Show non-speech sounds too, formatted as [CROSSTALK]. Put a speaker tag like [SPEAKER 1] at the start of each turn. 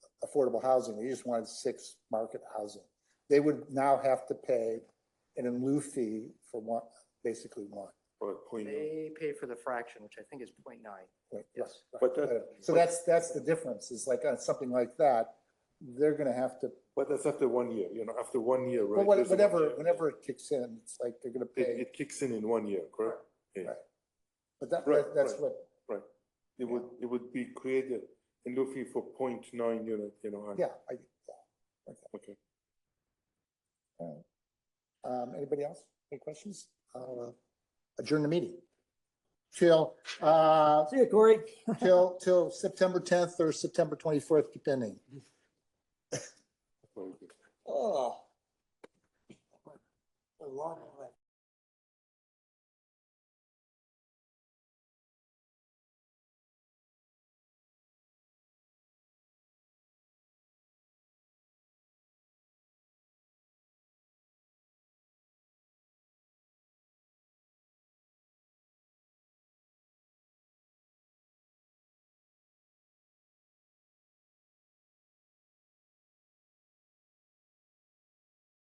[SPEAKER 1] affordable housing, they just wanted six market housing. They would now have to pay an in lieu fee for one, basically one.
[SPEAKER 2] Or point,
[SPEAKER 3] They pay for the fraction, which I think is 0.9.
[SPEAKER 1] right?
[SPEAKER 3] Yes.
[SPEAKER 2] But that-
[SPEAKER 1] So that's, that's the difference, is like, on something like that, they're gonna have to,
[SPEAKER 2] but that's after one year, you know, after one year,
[SPEAKER 1] but
[SPEAKER 2] right?
[SPEAKER 1] what-
[SPEAKER 2] there's a one
[SPEAKER 1] whatever,
[SPEAKER 2] year.
[SPEAKER 1] whenever it kicks in, it's like they're gonna
[SPEAKER 2] It,
[SPEAKER 1] pay,
[SPEAKER 2] it kicks in in one year, correct?
[SPEAKER 1] but that,
[SPEAKER 2] right,
[SPEAKER 1] that- that's
[SPEAKER 2] right.
[SPEAKER 1] what,
[SPEAKER 2] It would, it would be created in Luffy for point nine unit, you know. and-
[SPEAKER 1] yeah. I-
[SPEAKER 2] Okay.
[SPEAKER 1] Um, anybody else? Any questions? I'll uh, adjourn the meeting. Till, uh,
[SPEAKER 4] See you, Corey. [LAUGHS]
[SPEAKER 1] till, till September tenth or September twenty-fourth, depending.
[SPEAKER 2] Ah. very good.
[SPEAKER 4] Oh.